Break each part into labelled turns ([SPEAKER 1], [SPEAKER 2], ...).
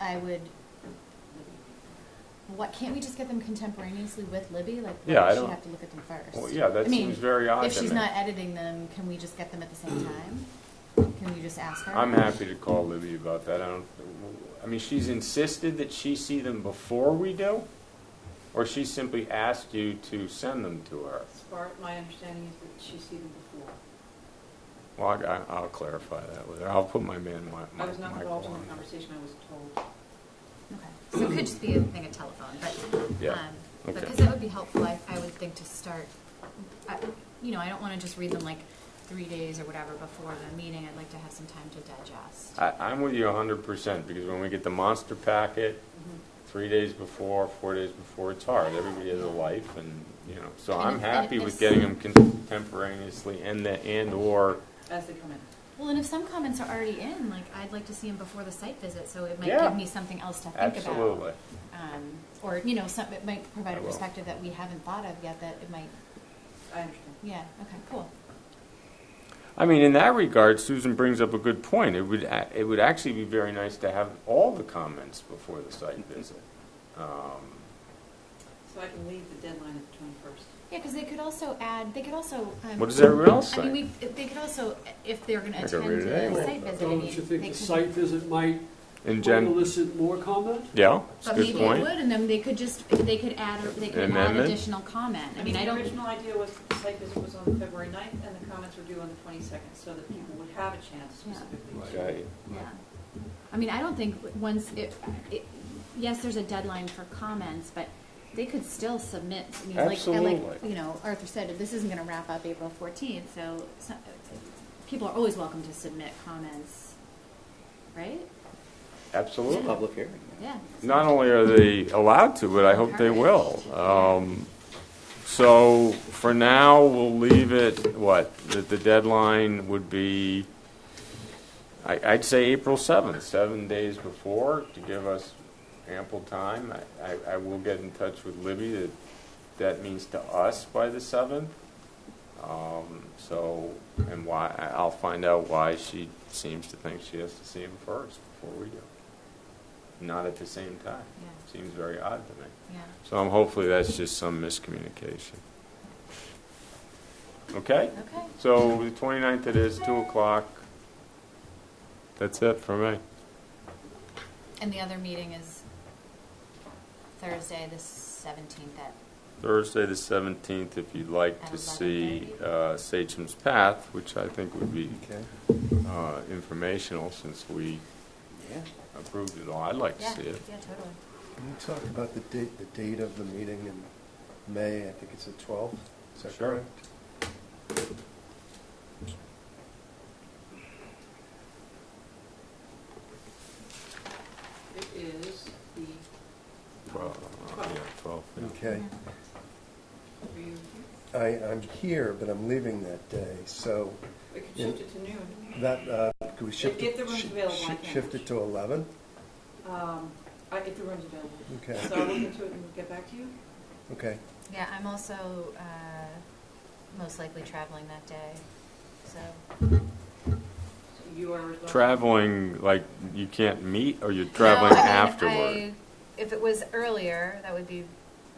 [SPEAKER 1] I would, what, can't we just get them contemporaneously with Libby? Like, why
[SPEAKER 2] Yeah, I
[SPEAKER 1] does she
[SPEAKER 2] don't-
[SPEAKER 1] have to look at them first?
[SPEAKER 2] Well, yeah, that
[SPEAKER 1] I mean,
[SPEAKER 2] seems very odd
[SPEAKER 1] If
[SPEAKER 2] to
[SPEAKER 1] she's
[SPEAKER 2] me.
[SPEAKER 1] not editing them, can we just get them at the same time? Can you just ask her?
[SPEAKER 2] I'm happy to call Libby about that. I don't, I mean, she's insisted that she see them before we do, or she simply asked you to send them to her?
[SPEAKER 3] As far, my understanding is that she's seen them before.
[SPEAKER 2] Well, I, I'll clarify that with her. I'll put my man, my,
[SPEAKER 3] I was not
[SPEAKER 2] Michael
[SPEAKER 3] involved in
[SPEAKER 2] on
[SPEAKER 3] the
[SPEAKER 2] it.
[SPEAKER 3] conversation, I was told.
[SPEAKER 1] Okay, so it could just be a thing of telephone, but,
[SPEAKER 2] Yeah,
[SPEAKER 1] um,
[SPEAKER 2] okay.
[SPEAKER 1] because that would be helpful, I, I would think to start, I, you know, I don't wanna just read them like three days or whatever before the meeting, I'd like to have some time to digest.
[SPEAKER 2] I, I'm with you hundred percent, because when we get the monster packet,
[SPEAKER 1] Mm-hmm.
[SPEAKER 2] three days before, four days before, it's hard. Everybody has a life and, you know, so
[SPEAKER 1] And
[SPEAKER 2] I'm
[SPEAKER 1] if-
[SPEAKER 2] happy
[SPEAKER 1] and
[SPEAKER 2] with
[SPEAKER 1] if-
[SPEAKER 2] getting them contemporaneously and the, and/or,
[SPEAKER 3] As they come in.
[SPEAKER 1] Well, and if some comments are already in, like, I'd like to see them before the site visit, so it might
[SPEAKER 2] Yeah.
[SPEAKER 1] give me something else to think about.
[SPEAKER 2] absolutely.
[SPEAKER 1] Um, or, you know, some, it might provide
[SPEAKER 2] I
[SPEAKER 1] a
[SPEAKER 2] will.
[SPEAKER 1] perspective that we haven't thought of yet, that it might,
[SPEAKER 3] I understand.
[SPEAKER 1] yeah, okay, cool.
[SPEAKER 2] I mean, in that regard, Susan brings up a good point. It would, a- it would actually be very nice to have all the comments before the site visit. Um,
[SPEAKER 3] So I can leave the deadline at the twenty-first.
[SPEAKER 1] Yeah, because they could also add, they could also. um,
[SPEAKER 2] What does everyone else
[SPEAKER 1] I mean,
[SPEAKER 2] think?
[SPEAKER 1] we, they could also, if they're going to
[SPEAKER 2] I could
[SPEAKER 1] attend
[SPEAKER 2] read it
[SPEAKER 1] the
[SPEAKER 2] anyway.
[SPEAKER 1] site visit, I mean.
[SPEAKER 4] Don't you think
[SPEAKER 1] they
[SPEAKER 4] the
[SPEAKER 1] could-
[SPEAKER 4] site visit might
[SPEAKER 2] And Jen,
[SPEAKER 4] elicit more comment?
[SPEAKER 2] yeah, it's a
[SPEAKER 1] But
[SPEAKER 2] good
[SPEAKER 1] maybe it
[SPEAKER 2] point.
[SPEAKER 1] would, and then they could just, they could add, they could add
[SPEAKER 2] Amendment?
[SPEAKER 1] additional comment. I mean, I
[SPEAKER 3] The
[SPEAKER 1] don't,
[SPEAKER 3] original idea was that the site visit was on February ninth, and the comments were due on the twenty-second, so that people would have a chance
[SPEAKER 1] Yeah.
[SPEAKER 3] specifically. to-
[SPEAKER 2] Okay.
[SPEAKER 1] yeah. I mean, I don't think once it, it, yes, there's a deadline for comments, but they could still submit. I mean, like, and like,
[SPEAKER 2] Absolutely.
[SPEAKER 1] you know, Arthur said, this isn't going to wrap up April 14th, so some- people are always welcome to submit comments, right?
[SPEAKER 2] Absolutely.
[SPEAKER 5] Public hearing.
[SPEAKER 1] Yeah.
[SPEAKER 2] Not only are they allowed to, but I hope they will. Um, So for now, we'll leave it, what, that the deadline would be, I, I'd say April 7th, seven days before, to give us ample time. I- I, I will get in touch with Libby that that means to us by the 7th. Um, So, and why, I- I'll find out why she seems to think she has to see him first before we do. Not at the same time.
[SPEAKER 1] Yeah.
[SPEAKER 2] Seems very odd to me.
[SPEAKER 1] Yeah.
[SPEAKER 2] So I'm hopefully that's just some miscommunication. Okay?
[SPEAKER 1] Okay.
[SPEAKER 2] So the 29th it is, 2 o'clock. That's it for me.
[SPEAKER 1] And the other meeting is Thursday, the seventeenth at,
[SPEAKER 2] Thursday, the 17th, if you'd like
[SPEAKER 1] At
[SPEAKER 2] to see
[SPEAKER 1] 11:30?
[SPEAKER 2] uh, Sachem's Path, which I think would be
[SPEAKER 5] Okay.
[SPEAKER 2] uh, informational since we
[SPEAKER 5] Yeah.
[SPEAKER 2] approved it all. I'd like to
[SPEAKER 1] yeah,
[SPEAKER 2] see it.
[SPEAKER 1] yeah, totally.
[SPEAKER 6] Can you talk about the date, the date of the meeting in May? I think it's the 12th, is that
[SPEAKER 2] Sure.
[SPEAKER 6] correct?
[SPEAKER 3] It is the,
[SPEAKER 2] Twelve, uh, yeah, twelve, yeah.
[SPEAKER 6] Okay.
[SPEAKER 3] are you,
[SPEAKER 6] I, I'm here, but I'm leaving that day, so
[SPEAKER 3] we could
[SPEAKER 6] Yeah.
[SPEAKER 3] shift it to noon.
[SPEAKER 6] that, uh, could we shift
[SPEAKER 3] If
[SPEAKER 6] it?
[SPEAKER 3] the room's
[SPEAKER 6] shi-
[SPEAKER 3] available, I
[SPEAKER 6] shi-
[SPEAKER 3] can.
[SPEAKER 6] Shift it to 11?
[SPEAKER 3] Um, I, if the room's available.
[SPEAKER 6] Okay.
[SPEAKER 3] So I'll look into it and we'll get back to you.
[SPEAKER 6] Okay.
[SPEAKER 1] Yeah, I'm also, uh, most likely traveling that day, so,
[SPEAKER 3] So You are responsible.
[SPEAKER 2] Traveling, like, you can't meet, or you're traveling
[SPEAKER 1] No, I mean,
[SPEAKER 2] afterward?
[SPEAKER 1] I- If it was earlier, that would be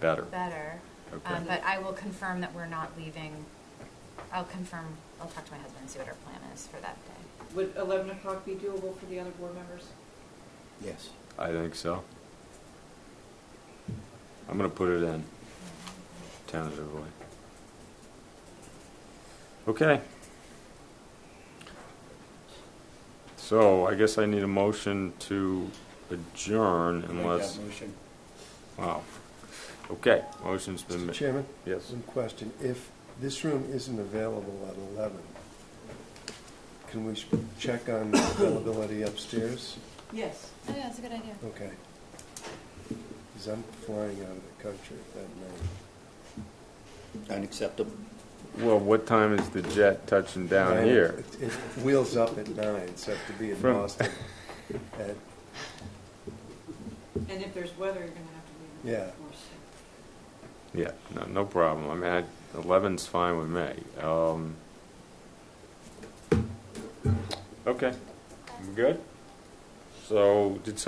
[SPEAKER 2] Better.
[SPEAKER 1] better,
[SPEAKER 2] Okay.
[SPEAKER 1] um, but I will confirm that we're not leaving, I'll confirm, I'll talk to my husband and see what our plan is for that day.
[SPEAKER 3] Would eleven o'clock be doable for the other board members?
[SPEAKER 5] Yes.
[SPEAKER 2] I think so. I'm gonna put it in tentatively. Okay. So I guess I need a motion to adjourn unless,
[SPEAKER 5] motion.
[SPEAKER 2] wow. Okay, motion's been
[SPEAKER 6] Mr.
[SPEAKER 2] made.
[SPEAKER 6] Chairman?
[SPEAKER 2] Yes.
[SPEAKER 6] One question. If this room isn't available at 11, can we sh- check on availability upstairs?
[SPEAKER 3] Yes.
[SPEAKER 1] Oh, yeah, that's a good idea.
[SPEAKER 6] Okay. Because I'm flying out of the country that night.
[SPEAKER 5] Unacceptable.
[SPEAKER 2] Well, what time is the jet touching down
[SPEAKER 6] Nine-
[SPEAKER 2] here?
[SPEAKER 6] It it wheels up at nine, so I have to be in
[SPEAKER 2] From-
[SPEAKER 6] Boston at
[SPEAKER 3] And if there's weather, you're gonna have to leave. it,
[SPEAKER 6] Yeah.
[SPEAKER 3] of course.
[SPEAKER 2] Yeah, no, no problem. I mean, I- eleven's fine with me. Um, okay, I'm good. So, did someone